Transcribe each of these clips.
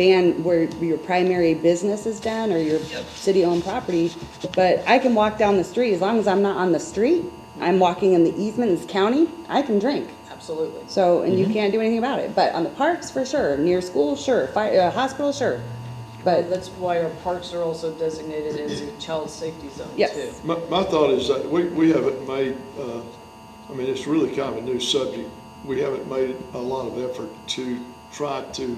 ban where your primary business is down or your city-owned property, but I can walk down the street, as long as I'm not on the street, I'm walking in the easement, it's county, I can drink. Absolutely. So, and you can't do anything about it, but on the parks, for sure, near school, sure, fire, uh, hospital, sure, but, That's why our parks are also designated as a child safety zone Yes. too. My, my thought is that we, we haven't made, uh, I mean, it's really kind of a new subject. We haven't made a lot of effort to try to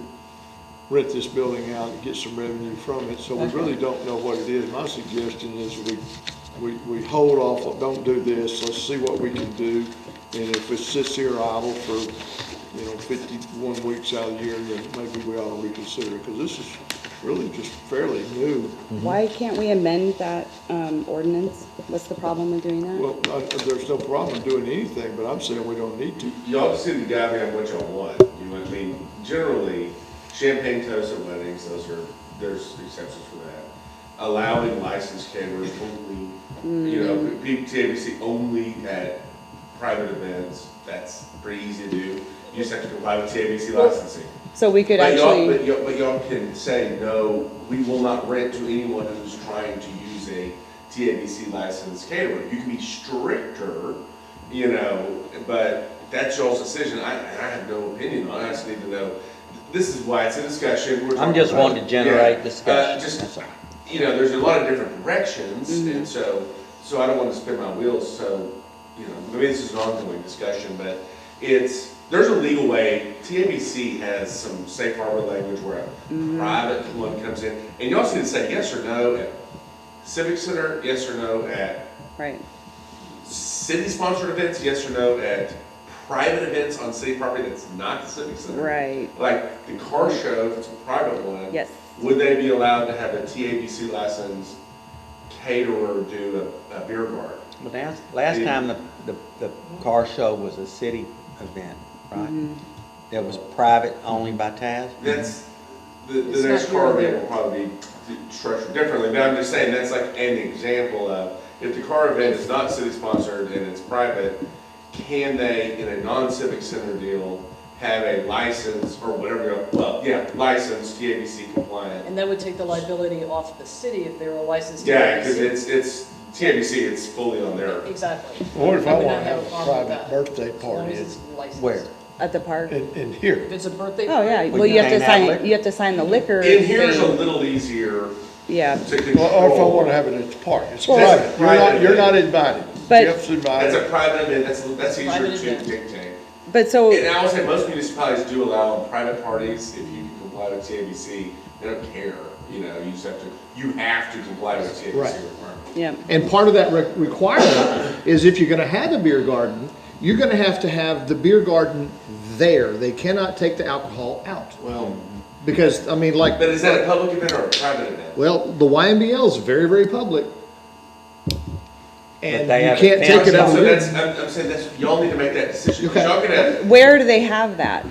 rent this building out and get some revenue from it, so we really don't know what it is. My suggestion is we, we, we hold off, don't do this, let's see what we can do. And if it sits here idle for, you know, fifty-one weeks out of the year, then maybe we ought to reconsider, because this is really just fairly new. why can't we amend that, um, ordinance? What's the problem with doing that? Well, I- there's no problem doing anything, but I'm saying we don't need to. Y'all just need to goddamn what y'all want, you know what I mean? Generally, champagne toasts at weddings, those are, there's exceptions for that. Allowing licensed caterers only, you know, PTABC only at private events, that's pretty easy to do. You just have to comply with TABC licensing. So we could But y'all, but actually, y'all, but y'all can say, no, we will not rent to anyone who's trying to use a TABC licensed caterer. You can be stricter, you know, but that's y'all's decision. I, and I have no opinion on it. I just need to know. This is why it's a discussion. We're talking I'm just about- wanting to generate Yeah. Uh, discussion, just- that's all. You know, there's a lot of different directions and so, so I don't want to spin my wheels. So, you know, maybe this is an ongoing discussion, but it's, there's a legal way. TABC has some safe harbor language where a private one comes in, and y'all seem to say yes or no at Civic Center, yes or no at right, city-sponsored events, yes or no at private events on city property that's not the Civic Center. right, Like the car show, if it's a private one. yes. Would they be allowed to have a TABC license caterer do a, a beer garden? Well, last, last Yeah. time the, the, the car show was a city event, right? That was private only by Taz? That's, the, It's the next not here or there. car event will probably be d- structured differently, but I'm just saying, that's like an example of, if the car event is not city-sponsored and it's private, can they, in a non-civic center deal, have a license or whatever, well, yeah, license, TABC compliant? And that would take the liability off the city if they were licensed. Yeah, because TABC. it's, it's, TABC, it's fully on their. Exactly. Or if I would not want to have a a problem with that, private birthday as long party, as it's it's licensed. Where? At the park? in, in here. If it's a birthday. Oh, yeah, party, well, you have to can't have sign, liquor. you have to sign the liquor. In here is a thing. little easier Yeah, to Or or if I want control. to have it at the park, it's Well- private. You're not, you're not invited. But- Jeff's That's a invited. private event, that's, that's easier Private to event. dictate. but so, And I would say most municipalities do allow on private parties, if you comply with TABC, they don't care, you know, you just have to, you have to comply with TABC Right. requirements. yeah, And part of that re- requirement is if you're going to have a beer garden, you're going to have to have the beer garden there. They cannot take the alcohol out. Well, Because, I mean, like, but is that a public event or a private event? well, the YMBL is very, very public. And they have you a can't take it fence. out. So of that's, here. I'm, I'm saying that's, y'all need to make that decision, 'Cause Okay. y'all can have, where do they have that?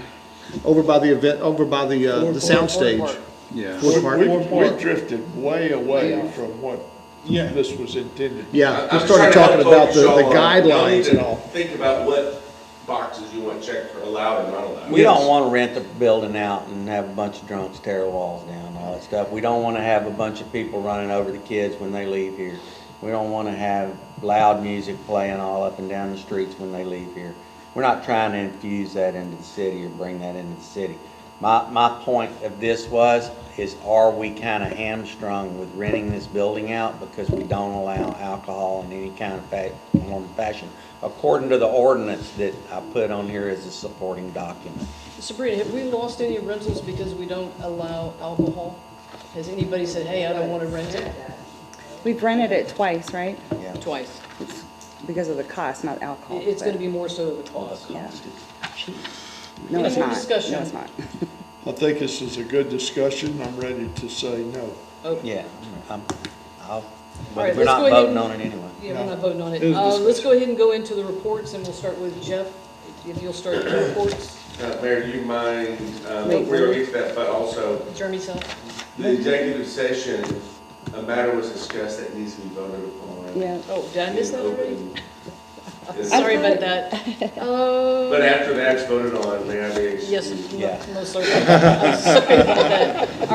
Over by the event, over by the, uh, the soundstage. Yeah. Ford Park. We, we drifted way away Yeah. from what this was intended. Yeah, I'm we just trying started to talking help about the, focus the y'all on- y'all need guidelines to and all. Think about what boxes you want checked or allowed and not allowed. We don't wanna rent the building out and have a bunch of drunks tear the walls down and all that stuff. We don't wanna have a bunch of people running over the kids when they leave here. We don't wanna have loud music playing all up and down the streets when they leave here. We're not trying to infuse that into the city or bring that into the city. My, my point of this was, is are we kinda hamstrung with renting this building out because we don't allow alcohol in any kind of fa- form or fashion? According to the ordinance that I put on here as a supporting document. Sabrina, have we lost any rentals because we don't allow alcohol? Has anybody said, hey, I don't want to rent it? We've rented it twice, right? Yeah. Twice. It's because of the cost, not alcohol. It- It's but- going to be more so the cost. Yeah. No, Any it's more not. discussion? No, it's not. I think this is a good discussion. I'm ready to say no. Oh, Yeah, I'm, I'll, All right, we're let's not go ahead voting and- on it anyway. Yeah, we're not voting on it. It was Uh, Let's go ahead and go into the reports, and we'll start with Jeff, if you'll start the reports, Uh, Mayor, do you mind, um, Wait, we're gonna wait. get to that, but also, Jeremy's up. the executive session, a matter was discussed that needs to be voted upon. Yeah. Oh, did I miss that already? Is- Sorry about that. Uh, But after that's voted on, may I be excused? Yes, Yeah. most certainly. Sorry about that.